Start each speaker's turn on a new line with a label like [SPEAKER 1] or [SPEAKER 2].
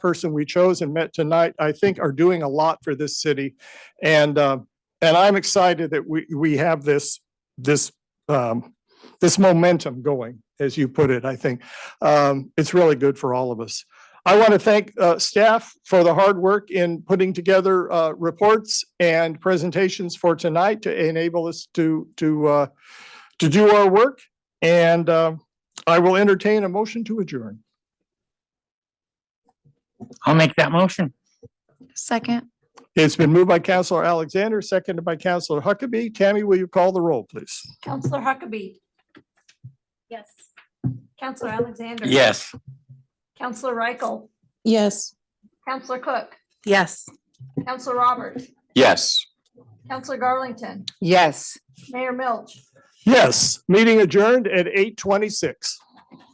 [SPEAKER 1] person we chose and met tonight, I think are doing a lot for this city. And, uh, and I'm excited that we, we have this, this, um, this momentum going, as you put it, I think. Um, it's really good for all of us. I want to thank, uh, staff for the hard work in putting together, uh, reports and presentations for tonight to enable us to, to, uh, to do our work. And, um, I will entertain a motion to adjourn.
[SPEAKER 2] I'll make that motion.
[SPEAKER 3] Second,
[SPEAKER 1] It's been moved by Counselor Alexander, seconded by Counselor Huckabee. Tammy, will you call the roll, please?
[SPEAKER 4] Counselor Huckabee. Yes. Counselor Alexander.
[SPEAKER 2] Yes.
[SPEAKER 4] Counselor Reichel.
[SPEAKER 5] Yes.
[SPEAKER 4] Counselor Cook.
[SPEAKER 5] Yes.
[SPEAKER 4] Counselor Roberts.
[SPEAKER 2] Yes.
[SPEAKER 4] Counselor Garlington.
[SPEAKER 5] Yes.
[SPEAKER 4] Mayor Milch.
[SPEAKER 1] Yes, meeting adjourned at eight twenty-six.